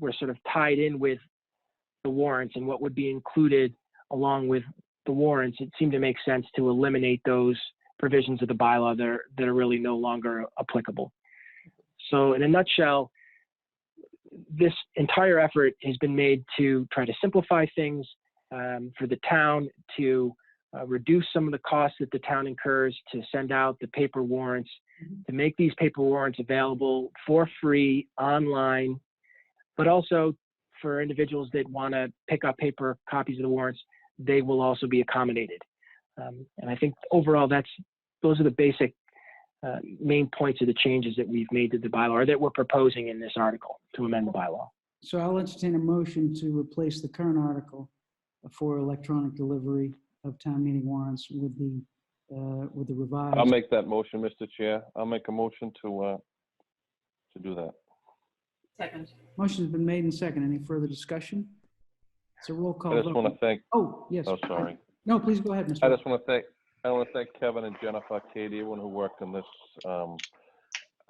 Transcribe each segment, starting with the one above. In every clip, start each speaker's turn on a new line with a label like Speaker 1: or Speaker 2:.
Speaker 1: were sort of tied in with the warrants and what would be included along with the warrants, it seemed to make sense to eliminate those provisions of the bylaw that are, that are really no longer applicable. So in a nutshell, this entire effort has been made to try to simplify things um, for the town to uh, reduce some of the costs that the town incurs to send out the paper warrants, to make these paper warrants available for free online, but also for individuals that want to pick up paper copies of the warrants, they will also be accommodated. Um, and I think overall, that's those are the basic uh, main points of the changes that we've made to the bylaw or that we're proposing in this article to amend the bylaw.
Speaker 2: So I'll entertain a motion to replace the current article for electronic delivery of town meeting warrants with the, uh, with the
Speaker 3: I'll
Speaker 2: revised.
Speaker 3: make that motion, Mr. Chair. I'll make a motion to, uh, to do that.
Speaker 4: Second.
Speaker 2: Motion's been made and second. Any further discussion? It's a roll
Speaker 3: I
Speaker 2: call
Speaker 3: just want
Speaker 2: vote.
Speaker 3: to thank,
Speaker 2: Oh, yes.
Speaker 3: oh, sorry.
Speaker 2: No, please go ahead, Mr.
Speaker 3: I
Speaker 2: Ross.
Speaker 3: just want to thank, I want to thank Kevin and Jennifer, Katie, everyone who worked on this. Um,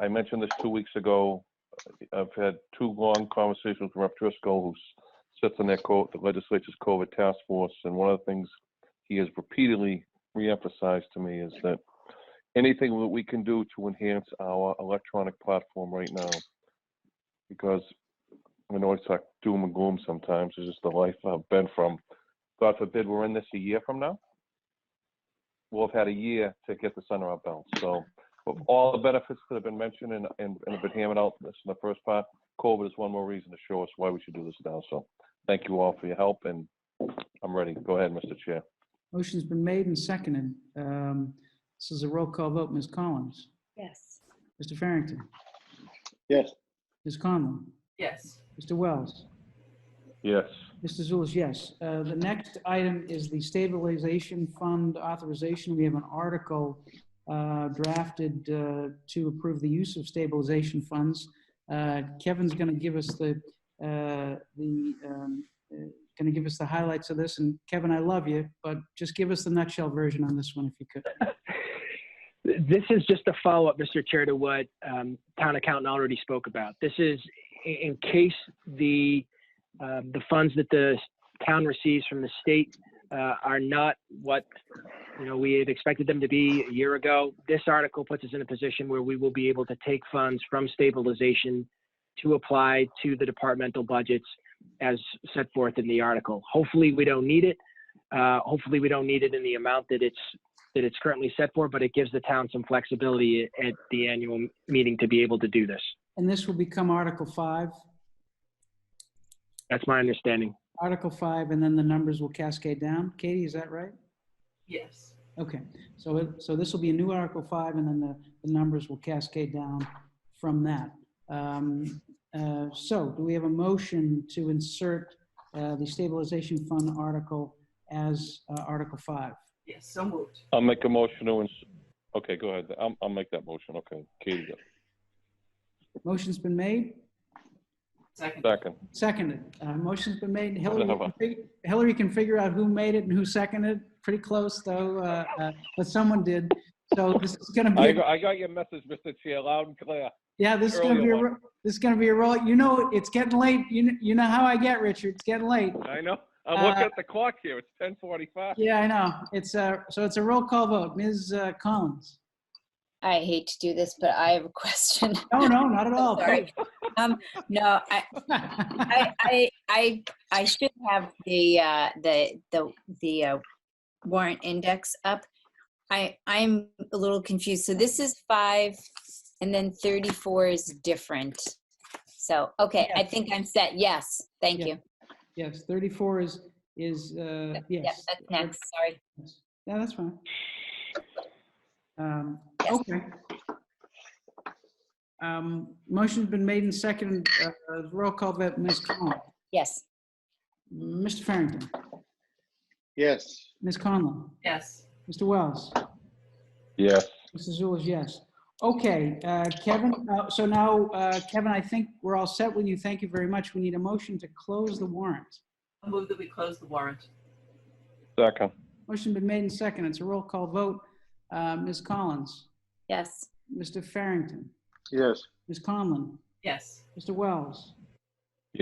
Speaker 3: I mentioned this two weeks ago. I've had two long conversations with Rep Driscoll, who sits on their co, the legislature's COVID task force. And one of the things he has repeatedly reemphasized to me is that anything that we can do to enhance our electronic platform right now, because I know it's like doom and gloom sometimes, it's just the life I've been from. God forbid we're in this a year from now we'll have had a year to get this under our belt. So of all the benefits that have been mentioned and, and, and have been hammered out this in the first part, COVID is one more reason to show us why we should do this now. So thank you all for your help and I'm ready. Go ahead, Mr. Chair.
Speaker 2: Motion's been made and seconded. Um, This is a roll call vote. Ms. Collins?
Speaker 4: Yes.
Speaker 2: Mr. Farrington?
Speaker 5: Yes.
Speaker 2: Ms. Conlon?
Speaker 4: Yes.
Speaker 2: Mr. Wells?
Speaker 3: Yes.
Speaker 2: Mr. Zulus, yes. Uh, The next item is the stabilization fund authorization. We have an article uh, drafted uh, to approve the use of stabilization funds. Uh, Kevin's going to give us the, uh, the, going to give us the highlights of this. And Kevin, I love you, but just give us the nutshell version on this one if you could.
Speaker 1: This is just a follow-up, Mr. Chair, to what um, town accountant already spoke about. This is i- in case the, um, the funds that the town receives from the state uh, are not what, you know, we had expected them to be a year ago. This article puts us in a position where we will be able to take funds from stabilization to apply to the departmental budgets as set forth in the article. Hopefully, we don't need it. Uh, Hopefully, we don't need it in the amount that it's that it's currently set for, but it gives the town some flexibility at the annual meeting to be able to do this.
Speaker 2: And this will become Article 5,
Speaker 1: That's my understanding.
Speaker 2: Article 5, and then the numbers will cascade down. Katie, is that right?
Speaker 4: Yes.
Speaker 2: Okay, so, it- so this will be a new Article 5, and then the, the numbers will cascade down from that. Um, uh, So do we have a motion to insert uh, the stabilization fund article as uh, Article 5?
Speaker 4: Yes. So moved.
Speaker 3: I'll make a motion to, ins- okay, go ahead. I'll, I'll make that motion. Okay. Katie,
Speaker 2: Motion's been made,
Speaker 4: Second.
Speaker 3: second.
Speaker 2: seconded. Uh, Motion's been made. Hillary
Speaker 3: Whatever.
Speaker 2: can fig- Hillary can figure out who made it and who seconded, pretty close, though, uh, uh, but someone did. So this is going to
Speaker 3: I
Speaker 2: be,
Speaker 3: got, I got your message, Mr. Chair, loud and clear.
Speaker 2: yeah, this is going to be,
Speaker 3: earlier
Speaker 2: a
Speaker 3: one.
Speaker 2: ro- this is going to be a roll. You know, it's getting late. You, kn- you know how I get, Richard. It's getting late.
Speaker 3: I know. I'm looking at the clock here. It's 10:45.
Speaker 2: Yeah, I know. It's a, so it's a roll call vote. Ms. uh, Collins?
Speaker 6: I hate to do this, but I have a question.
Speaker 2: No, no, not at all.
Speaker 6: Sorry. Um, no, I, I, I, I, I should have the, uh, the, the, the uh, warrant index up. I, I'm a little confused. So this is five and then 34 is different. So, okay, I
Speaker 2: Yes.
Speaker 6: think I'm set. Yes, thank
Speaker 2: Yeah.
Speaker 6: you.
Speaker 2: Yes, 34 is, is, uh,
Speaker 6: Yep,
Speaker 2: yes.
Speaker 6: that's next, sorry.
Speaker 2: Yeah, that's fine. Um,
Speaker 6: Yes.
Speaker 2: Okay. Um, Motion's been made and seconded. Uh, uh, Roll call vote, Ms. Collins.
Speaker 6: Yes,
Speaker 2: Mr. Farrington?
Speaker 5: Yes.
Speaker 2: Ms. Conlon?
Speaker 4: Yes.
Speaker 2: Mr. Wells?
Speaker 3: Yes.
Speaker 2: Mr. Zulus, yes. Okay, uh, Kevin, uh, so now, uh, Kevin, I think we're all set with you. Thank you very much. We need a motion to close the warrant.
Speaker 4: I move that we close the warrant.
Speaker 3: Second.
Speaker 2: Motion been made and second. It's a roll call vote. Uh, Ms. Collins,
Speaker 6: yes,
Speaker 2: Mr. Farrington,
Speaker 5: Yes.
Speaker 2: Ms. Conlon,
Speaker 4: Yes.
Speaker 2: Mr. Wells,